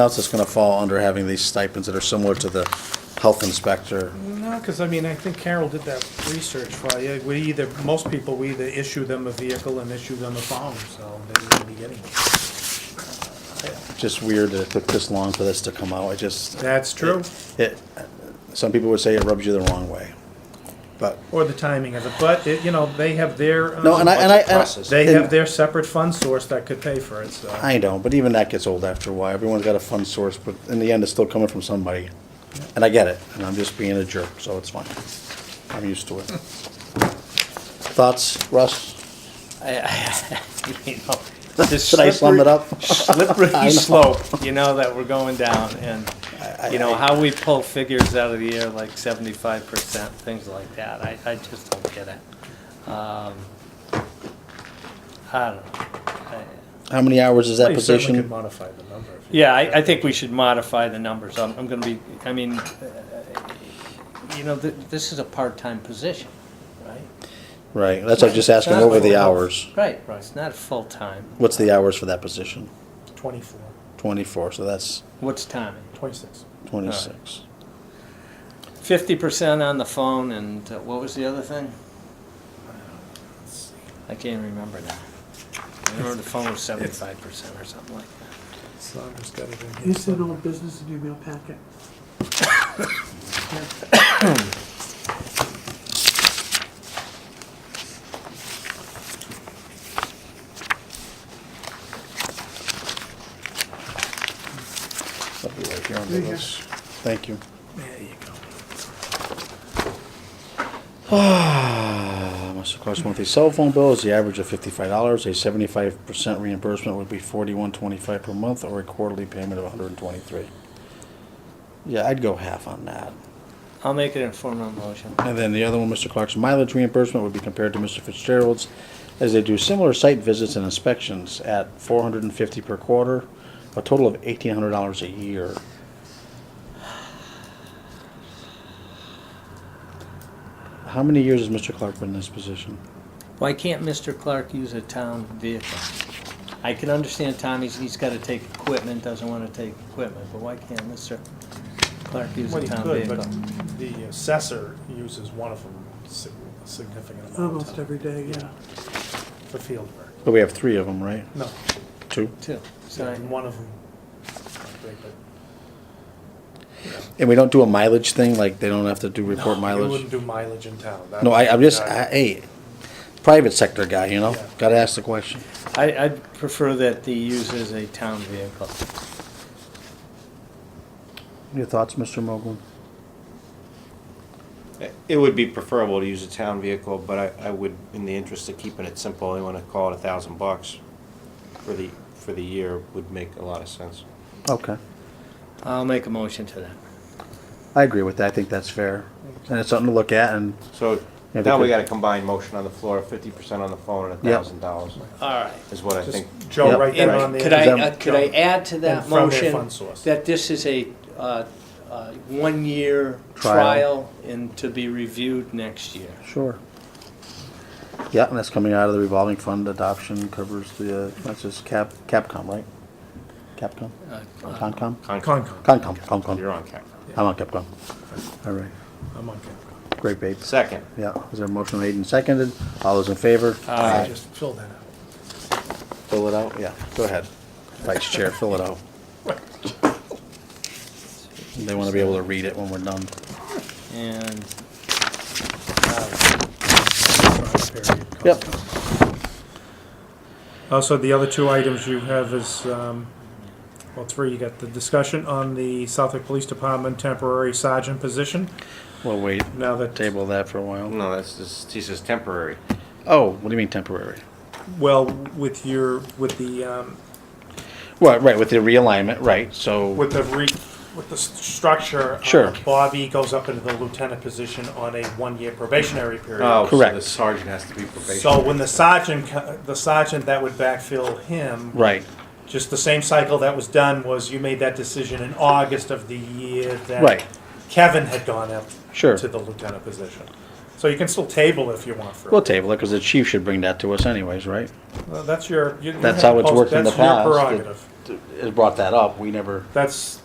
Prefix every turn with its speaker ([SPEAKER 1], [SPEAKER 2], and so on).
[SPEAKER 1] else that's going to fall under having these stipends that are similar to the health inspector?
[SPEAKER 2] No, because I mean, I think Carol did that research for you. We either, most people, we either issue them a vehicle and issue them a phone, so they wouldn't be getting it.
[SPEAKER 1] Just weird that it took this long for this to come out. I just,
[SPEAKER 2] That's true.
[SPEAKER 1] it, some people would say it rubs you the wrong way. But,
[SPEAKER 2] Or the timing of it, but, it- you know, they have their. um,
[SPEAKER 1] no, and I, and I. and I-
[SPEAKER 3] Process.
[SPEAKER 2] They have their separate fund source that could pay for it, so.
[SPEAKER 1] I know, but even that gets old after a while. Everyone's got a fund source, but in the end, it's still coming from somebody. And I get it, and I'm just being a jerk, so it's fine. I'm used to it. Thoughts, Russ?
[SPEAKER 3] You know, this
[SPEAKER 1] Should I slum it
[SPEAKER 3] slippery-
[SPEAKER 1] up? I know.
[SPEAKER 3] Slippery slope, you know, that we're going down, and, you know, how we pull figures out of the air like seventy-five percent, things like that, I, I just don't get it. Um, I don't know. I-
[SPEAKER 1] How many hours is that
[SPEAKER 2] You certainly
[SPEAKER 1] position?
[SPEAKER 2] could modify the number. if you-
[SPEAKER 3] Yeah, I, I think we should modify the numbers, I'm, I'm gonna be, I mean, uh, you know, th- this is a part-time position, right?
[SPEAKER 1] Right, that's what I was just asking,
[SPEAKER 3] Not
[SPEAKER 1] what were the
[SPEAKER 3] full-
[SPEAKER 1] hours?
[SPEAKER 3] Right, right, it's not full-time,
[SPEAKER 1] What's the hours for that position?
[SPEAKER 2] Twenty-four,
[SPEAKER 1] Twenty-four, so that's
[SPEAKER 3] what's timing?
[SPEAKER 2] twenty-six.
[SPEAKER 1] twenty-six.
[SPEAKER 3] fifty percent on the phone, and uh, what was the other thing? I can't remember now. I remember the phone was seventy-five percent or something like that.
[SPEAKER 2] Saunders got it in here.
[SPEAKER 4] It's an old business in your mail packet.
[SPEAKER 1] I'll be right here under
[SPEAKER 4] There you go.
[SPEAKER 1] this. Thank you.
[SPEAKER 2] There you go.
[SPEAKER 1] Ah, Must have cost monthly cell phone bill is the average of fifty-five dollars. A seventy-five percent reimbursement would be forty-one twenty-five per month or a quarterly payment of one hundred and twenty-three. Yeah, I'd go half on that.
[SPEAKER 3] I'll make an informal motion.
[SPEAKER 1] And then the other one, Mr. Clark's mileage reimbursement would be compared to Mr. Fitzgerald's as they do similar site visits and inspections at four hundred and fifty per quarter, a total of eighteen hundred dollars a year. How many years has Mr. Clark been in this position?
[SPEAKER 3] Why can't Mr. Clark use a town vehicle? I can understand Tommy's, he's gotta take equipment, doesn't wanna take equipment, but why can't Mr. Clark use
[SPEAKER 2] Well,
[SPEAKER 3] a
[SPEAKER 2] you
[SPEAKER 3] town
[SPEAKER 2] could,
[SPEAKER 3] vehicle?
[SPEAKER 2] but the assessor uses one of them sig- a significant amount of
[SPEAKER 4] Almost
[SPEAKER 2] time
[SPEAKER 4] every day, yeah.
[SPEAKER 2] for field work.
[SPEAKER 1] But we have three of them, right?
[SPEAKER 2] No,
[SPEAKER 1] Two.
[SPEAKER 3] Too. So I-
[SPEAKER 2] and one of them, not big, but.
[SPEAKER 1] And we don't do a mileage thing, like they don't have to do report
[SPEAKER 2] No, You
[SPEAKER 1] mileage?
[SPEAKER 2] wouldn't do mileage in town. That
[SPEAKER 1] No, I, I'm
[SPEAKER 2] would be
[SPEAKER 1] just, I,
[SPEAKER 2] not-
[SPEAKER 1] hey, private sector guy, you know?
[SPEAKER 2] Yeah.
[SPEAKER 1] Gotta ask the question.
[SPEAKER 3] I, I'd prefer that he uses a town vehicle.
[SPEAKER 1] Your thoughts, Mr. Mogul?
[SPEAKER 5] It would be preferable to use a town vehicle, but I, I would, in the interest of keeping it simple, I wanna call it a thousand bucks for the, for the year would make a lot of sense.
[SPEAKER 1] Okay.
[SPEAKER 3] I'll make a motion to that.
[SPEAKER 1] I agree with that. I think that's fair. And it's something to look at and,
[SPEAKER 5] So
[SPEAKER 1] Yeah,
[SPEAKER 5] now we
[SPEAKER 1] because-
[SPEAKER 5] got a combined motion on the floor, fifty percent on the phone and a
[SPEAKER 1] Yeah.
[SPEAKER 5] thousand dollars
[SPEAKER 3] All right.
[SPEAKER 5] is what I
[SPEAKER 2] Just
[SPEAKER 5] think.
[SPEAKER 1] Yep.
[SPEAKER 2] Joe, right there
[SPEAKER 1] And
[SPEAKER 2] on the.
[SPEAKER 3] Could I,
[SPEAKER 1] Them-
[SPEAKER 3] uh, could I add to that
[SPEAKER 2] And from their
[SPEAKER 3] motion
[SPEAKER 2] fund source.
[SPEAKER 3] that this is a, uh, uh, one-year
[SPEAKER 1] Trial.
[SPEAKER 3] trial and to be reviewed next year?
[SPEAKER 1] sure. Yeah, and that's coming out of the revolving fund adoption covers the, uh, that's just Cap, Capcom, right? Capcom?
[SPEAKER 3] Uh, uh,
[SPEAKER 1] Concom?
[SPEAKER 2] Concom,
[SPEAKER 1] Concom, Concom.
[SPEAKER 5] You're on camera.
[SPEAKER 1] I'm on Capcom. All right.
[SPEAKER 2] I'm on Concom.
[SPEAKER 1] Great, babe.
[SPEAKER 5] Second,
[SPEAKER 1] Yeah. Is there a motion made and seconded? All those in favor?
[SPEAKER 2] I just filled that out.
[SPEAKER 1] Fill it out? Yeah, go ahead. Vice Chair, fill it out. They want to be able to read it when we're done.
[SPEAKER 3] And
[SPEAKER 1] Yep.
[SPEAKER 2] Also, Uh, the other two items you have is, um, well, three, you got the discussion on the Southwick Police Department temporary sergeant position.
[SPEAKER 1] We'll wait,
[SPEAKER 2] Now that,
[SPEAKER 1] table that for a while.
[SPEAKER 5] no, that's, this, this is temporary.
[SPEAKER 1] Oh, what do you mean temporary?
[SPEAKER 2] well, with your, with the, um,
[SPEAKER 1] Well, right, with the realignment, right, so,
[SPEAKER 2] with the re, with the s- structure. uh,
[SPEAKER 1] Sure.
[SPEAKER 2] Bobby goes up into the lieutenant position on a one-year probationary period.
[SPEAKER 5] Oh, so
[SPEAKER 1] Correct.
[SPEAKER 5] the sergeant has to be
[SPEAKER 2] So
[SPEAKER 5] probationary.
[SPEAKER 2] when the sergeant, co- the sergeant that would backfill him,
[SPEAKER 1] right,
[SPEAKER 2] just the same cycle that was done was you made that decision in August of the year that
[SPEAKER 1] Right.
[SPEAKER 2] Kevin had gone up
[SPEAKER 1] Sure.
[SPEAKER 2] to the lieutenant position. So you can still table if you want for
[SPEAKER 1] we'll table it, because the chief should bring that to us anyways, right?
[SPEAKER 2] Well, that's your. you- you
[SPEAKER 1] That's
[SPEAKER 2] have
[SPEAKER 1] how it's
[SPEAKER 2] post-
[SPEAKER 1] worked in the
[SPEAKER 2] That's
[SPEAKER 1] past.
[SPEAKER 2] your prerogative.
[SPEAKER 5] The-
[SPEAKER 1] has brought that up. We never
[SPEAKER 2] That's,